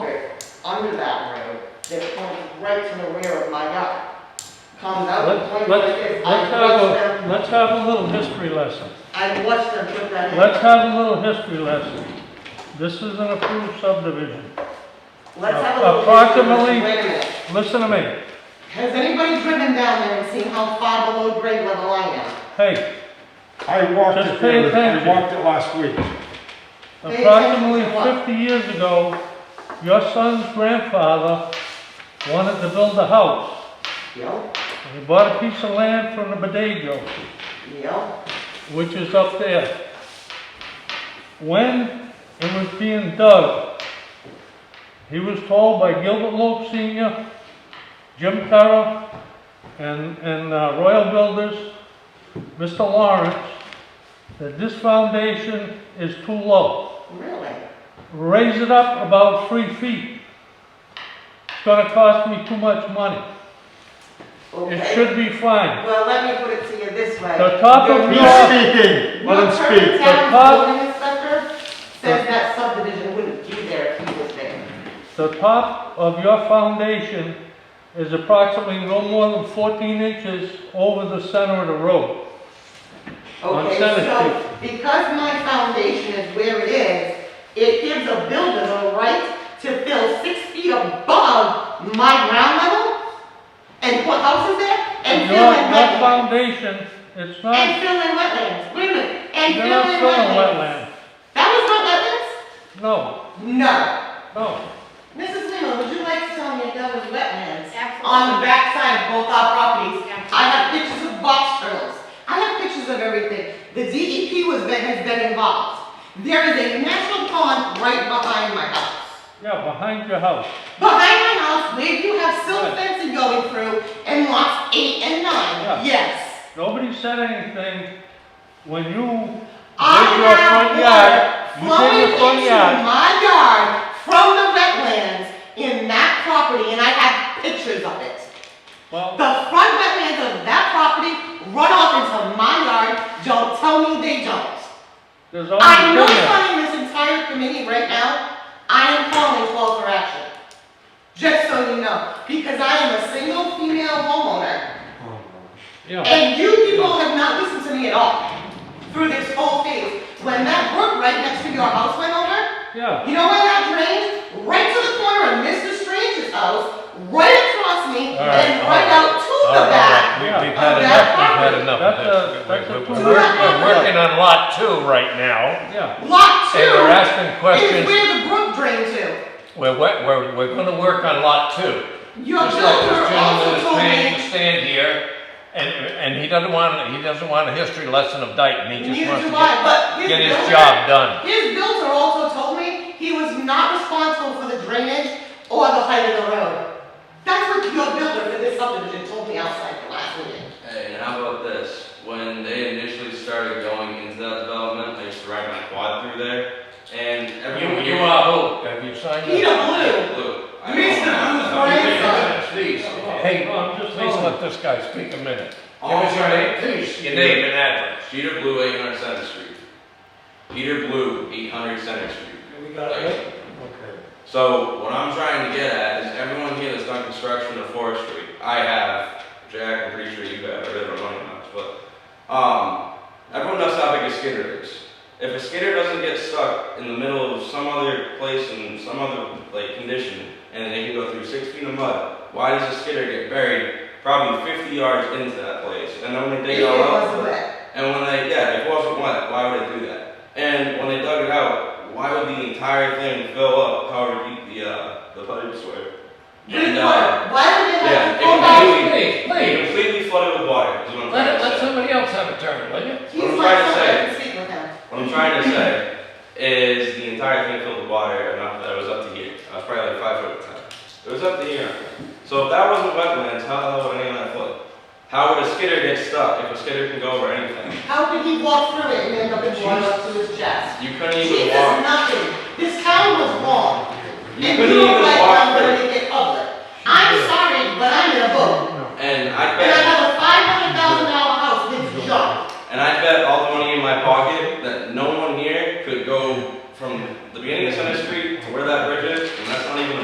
under that road that comes right to the rear of my yard. Comes out, Let's, points like let's, this. I let's watched have a, them, let's have a little history lesson. I watched them put that in. Let's have a little history lesson. This is an approved subdivision. Let's have a little. approximately- Wait a minute. Listen to me. Has anybody driven down there and seen how far below grade level I am? Hey, I walked Just it, pay there. I attention. walked it last week. approximately fifty years ago, your son's grandfather wanted to build a house. Yep, And He bought a piece of land from the Bodego, yep, which is up there. When it was being dug, he was told by Gilbert Loeb Senior, Jim Carroll, and, and uh, Royal Builders, Mr. Lawrence, that this foundation is too low. really? Raise it up about three feet. It's gonna cost me too much money. It Okay. should be fine. Well, let me put it to you this way. The top Your- of He's your- speaking, let him Your current speak. town's The top- building inspector says that subdivision wouldn't be there if he was there. The top of your foundation is approximately no more than 14 inches over the center of the road. On Okay, Center so because my foundation is where it is, it gives a builder the right to fill six feet above my ground level and put houses there and Your, fill in your wetlands. foundation, it's And not, fill in wetlands, wait a minute, and you're fill in not filling wetlands. wetland. That No, was not wetlands? No. no. Mrs. Lima, would you like to tell me if that was wetlands? Absolutely. On the backside of both our properties, Absolutely. I have pictures of box turtles. I have pictures of everything. The DEP was, been- has been involved. There is a natural pond right behind my house. Yeah, behind your house. Behind my house, where you have silk Right. fencing going through and lots eight and nine, yes. Nobody said anything when you I did your front yard. have You water did flowing your front into yard. my yard from the wetlands in that property and I have pictures of it. Well, The front wetlands of that property run off into my yard, don't tell me they don't. there's Oh, only I know two it's there. not in this entire committee right now, I am calling call for action. Just so you know, because I am a single female homeowner, Yeah, and you people have not listened to me at all through this whole phase. When that brook right next to your house went over, yeah. you know where that drains? Right to the corner of Mr. Strange's house, right across me, All right, and all right right. out to Oh, All the right, back. all right. Yeah. We- Of We've had enough, that we've had property. enough. That's a- That's- that's a we're- two- We're we're working on lot two right now, Yeah, Lot two and we're asking is questions. where the brook drained to. We're, we're, we're- we're gonna work on lot two. Your Just like builder this gentleman also is told paying to me, stand here, and, and he doesn't want, he doesn't want a history lesson of Dayton, he just neither wants do I, to but his get, get his builder- job done. His builder also told me he was not responsible for the drainage or the height of the road. That's what your builder for this subdivision told me outside the last meeting. Hey, and how about this? When they initially started going into that development, I used to ride my quad through there, and everyone. You, uh, you are who? Have you signed up? Peter Blue, Blue. I Mr. don't know. Blue's grandson. Please, hey, please let this guy speak a minute. Give All us your name, right. please, your name and address. Peter Blue, eight hundred Center Street. Peter Blue, eight hundred Center Street. Like, Okay. So what I'm trying to get at is everyone here that's done construction or forestry, I have, Jack, I'm pretty sure you have, I really don't know you much, but, um, everyone knows how big a skidder is. If a skidder doesn't get stuck in the middle of some other place in some other, like, condition, and they can go through six feet of mud, why does a skidder get buried probably fifty yards into that place? And then when they dig it it all out. wasn't wet. And when they, yeah, if it wasn't wet, why would they do that? And when they dug it out, why would the entire thing fill up however deep the, uh, the pipes were? Good And, uh, work. Why did they yeah, have it to go back? Please, it please, completely flooded with water, is what I'm let, trying it- to let say. somebody else have a turn, will you? He's What I'm like, trying to somebody say- can speak with him. What I'm trying to say is the entire thing filled with water enough that it was up to here. I was probably like five foot at the time. It was up to here. So if that wasn't wetlands, how the hell would any of that flood? How would a skidder get stuck if a skidder can go over anything? How could he walk through it and end up in water up to his chest? You couldn't even Jesus, walk. nothing. This town was wrong. You And couldn't you even Oh,